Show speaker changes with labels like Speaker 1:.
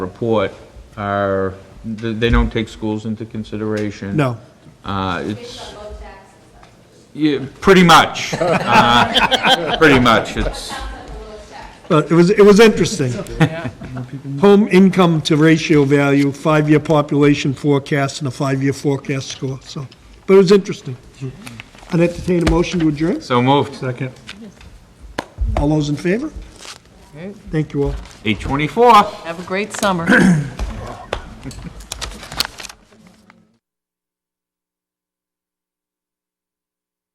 Speaker 1: report are, th- they don't take schools into consideration.
Speaker 2: No.
Speaker 1: Uh, It's, yeah, pretty much. Uh, Pretty much, it's,
Speaker 2: But it was, it was interesting. Home income to ratio value, five-year population forecast and a five-year forecast score, so, but it was interesting. I'd entertain a motion to adjourn.
Speaker 1: so moved.
Speaker 2: Second. All those in favor? Thank you all.
Speaker 1: 824.
Speaker 3: Have a great summer.